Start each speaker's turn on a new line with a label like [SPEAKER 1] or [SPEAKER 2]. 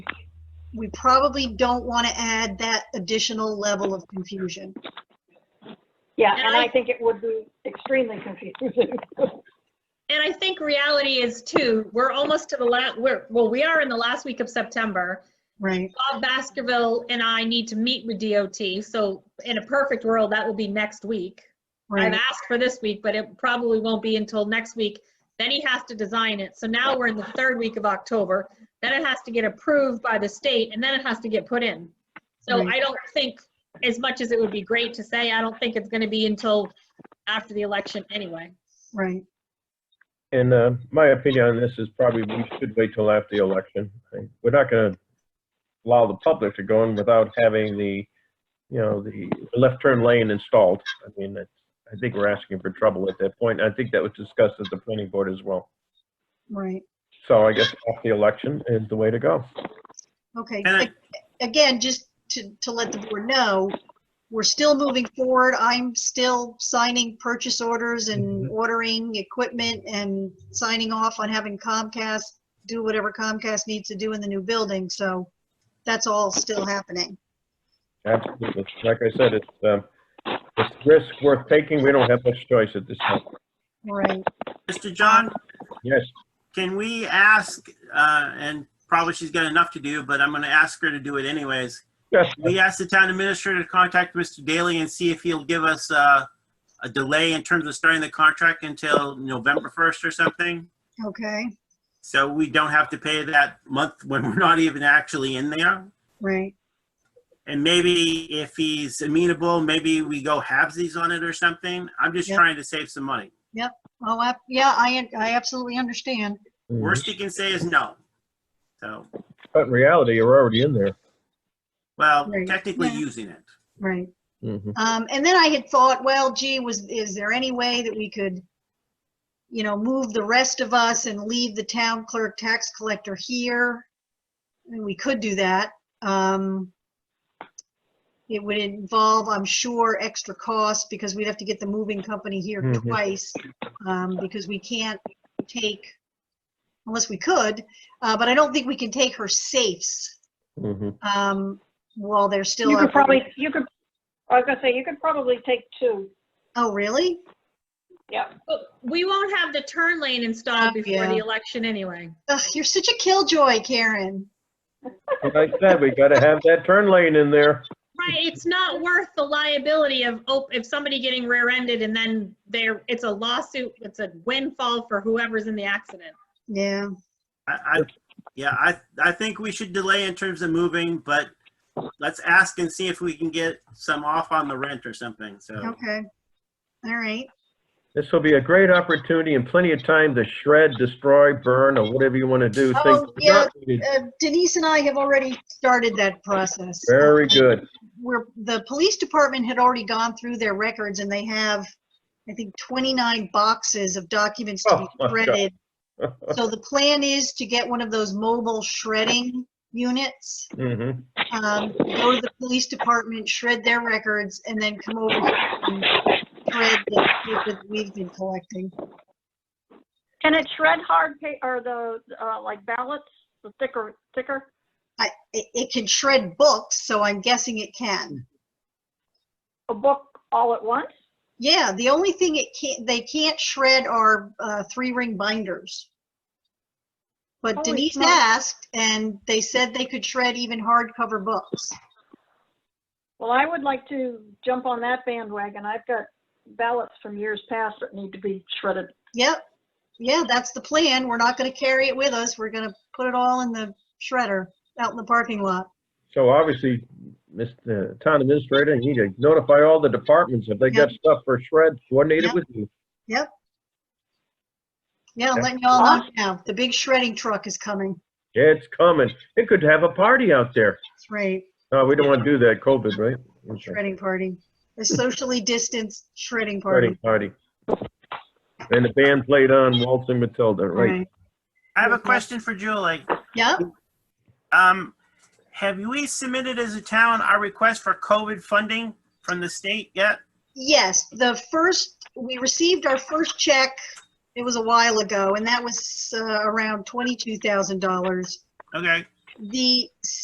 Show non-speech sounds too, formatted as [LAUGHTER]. [SPEAKER 1] we probably don't want to add that additional level of confusion.
[SPEAKER 2] Yeah,
[SPEAKER 3] And
[SPEAKER 2] and
[SPEAKER 3] I-
[SPEAKER 2] I think it would be extremely confusing. [LAUGHS]
[SPEAKER 3] And I think reality is too, we're almost to the last, we're, well, we are in the last week of September.
[SPEAKER 1] Right.
[SPEAKER 3] Bob Baskerville and I need to meet with DOT, so in a perfect world, that will be next week. I've
[SPEAKER 1] Right.
[SPEAKER 3] asked for this week, but it probably won't be until next week. Then he has to design it. So now we're in the third week of October. Then it has to get approved by the state and then it has to get put in. So
[SPEAKER 1] Right.
[SPEAKER 3] I don't think, as much as it would be great to say, I don't think it's gonna be until after the election anyway.
[SPEAKER 1] Right.
[SPEAKER 4] And uh, my opinion on this is probably we should wait till after the election. I- We're not going to allow the public to go in without having the, you know, the left turn lane installed. I mean, that's- I think we're asking for trouble at that point. I think that was discussed at the planning board as well.
[SPEAKER 1] Right.
[SPEAKER 4] So I guess after the election is the way to go.
[SPEAKER 1] Okay.
[SPEAKER 5] And I-
[SPEAKER 1] Again, just to, to let the board know, we're still moving forward. I'm still signing purchase orders and ordering equipment and signing off on having Comcast do whatever Comcast needs to do in the new building. So that's all still happening.
[SPEAKER 4] Absolutely. Like I said, it's, um, it's risk worth taking. We don't have much choice at this time.
[SPEAKER 1] Right.
[SPEAKER 5] Mr. John,
[SPEAKER 4] Yes,
[SPEAKER 5] can we ask, uh, and probably she's got enough to do, but I'm gonna ask her to do it anyways.
[SPEAKER 4] yes,
[SPEAKER 5] We asked the town administrator to contact Mr. Daly and see if he'll give us, uh, a delay in terms of starting the contract until November first or something.
[SPEAKER 1] Okay.
[SPEAKER 5] So we don't have to pay that month when we're not even actually in there.
[SPEAKER 1] Right.
[SPEAKER 5] And maybe if he's amenable, maybe we go halvesies on it or something. I'm just
[SPEAKER 1] Yeah.
[SPEAKER 5] trying to save some money.
[SPEAKER 1] Oh, I- yeah, I, I absolutely understand.
[SPEAKER 5] Worst he can say is no. So,
[SPEAKER 4] but in reality, you're already in there.
[SPEAKER 5] well,
[SPEAKER 1] Right.
[SPEAKER 5] technically
[SPEAKER 1] Yeah.
[SPEAKER 5] using it.
[SPEAKER 1] Right.
[SPEAKER 4] Mhm.
[SPEAKER 1] Um, and then I had thought, well, gee, was, is there any way that we could, you know, move the rest of us and leave the town clerk tax collector here? And we could do that. Um, it would involve, I'm sure, extra costs because we'd have to get the moving company here
[SPEAKER 4] Mhm.
[SPEAKER 1] twice. Um, because we can't take, unless we could, uh, but I don't think we can take her safes,
[SPEAKER 4] Mhm.
[SPEAKER 1] um, while they're still.
[SPEAKER 2] You could
[SPEAKER 1] operating.
[SPEAKER 2] probably, you could, I was gonna say, you could probably take two.
[SPEAKER 1] Oh, really?
[SPEAKER 3] But we won't have the turn lane installed
[SPEAKER 1] Oh,
[SPEAKER 3] before the
[SPEAKER 1] yeah.
[SPEAKER 3] election anyway.
[SPEAKER 1] Ugh, you're such a killjoy, Karen.
[SPEAKER 4] Like I said, we got to have that turn lane in there.
[SPEAKER 3] Right, it's [LAUGHS] not worth the liability of, oh, if somebody getting rear-ended and then there, it's a lawsuit, it's a windfall for whoever's in the accident.
[SPEAKER 1] Yeah,
[SPEAKER 5] I, I, yeah, I, I think we should delay in terms of moving, but let's ask and see if we can get some off on the rent or something, so.
[SPEAKER 1] okay. All right,
[SPEAKER 4] This will be a great opportunity and plenty of time to shred, destroy, burn, or whatever you want to do.
[SPEAKER 1] Oh,
[SPEAKER 4] Things
[SPEAKER 1] yeah.
[SPEAKER 4] not needed.
[SPEAKER 1] Uh, Denise and I have already started that process.
[SPEAKER 4] Very good.
[SPEAKER 1] Where the police department had already gone through their records and they have, I think, 29 boxes of documents to
[SPEAKER 4] Oh,
[SPEAKER 1] be
[SPEAKER 4] my God. [LAUGHS]
[SPEAKER 1] shredded. So the plan is to get one of those mobile shredding units,
[SPEAKER 4] Mhm.
[SPEAKER 1] um, go to the police department, shred their records, and then come over here and shred the paper that we've been collecting.
[SPEAKER 2] Can it shred hard pa, or the, uh, like ballots, the thicker, thicker?
[SPEAKER 1] I, it, it can shred books, so I'm guessing it can.
[SPEAKER 2] A book all at once?
[SPEAKER 1] Yeah, the only thing it can't, they can't shred are, uh, three-ring binders. But
[SPEAKER 2] Holy
[SPEAKER 1] Denise
[SPEAKER 2] smokes.
[SPEAKER 1] asked, and they said they could shred even hardcover books.
[SPEAKER 2] Well, I would like to jump on that bandwagon. I've got ballots from years past that need to be shredded.
[SPEAKER 1] Yep, yeah, that's the plan. We're not gonna carry it with us. We're gonna put it all in the shredder out in the parking lot.
[SPEAKER 4] So obviously, Mr. Town Administrator, you need to notify all the departments if they got stuff for shred coordinated
[SPEAKER 1] Yep.
[SPEAKER 4] with you.
[SPEAKER 1] Yeah, I'm
[SPEAKER 4] Okay.
[SPEAKER 1] letting y'all know now. The big shredding truck is coming.
[SPEAKER 4] It's coming. It could have a party out there.
[SPEAKER 1] That's right,
[SPEAKER 4] No, we don't want to do that, COVID, right? Okay.
[SPEAKER 1] shredding party. A socially distanced shredding
[SPEAKER 4] Party,
[SPEAKER 1] party.
[SPEAKER 4] party. And the band played on Waltzing Matilda, right?
[SPEAKER 5] I have a question for Julie.
[SPEAKER 1] Yep.
[SPEAKER 5] Um, have we submitted as a town our request for COVID funding from the state yet?
[SPEAKER 1] Yes, the first, we received our first check, it was a while ago, and that was uh, around $22,000.
[SPEAKER 5] Okay.
[SPEAKER 1] The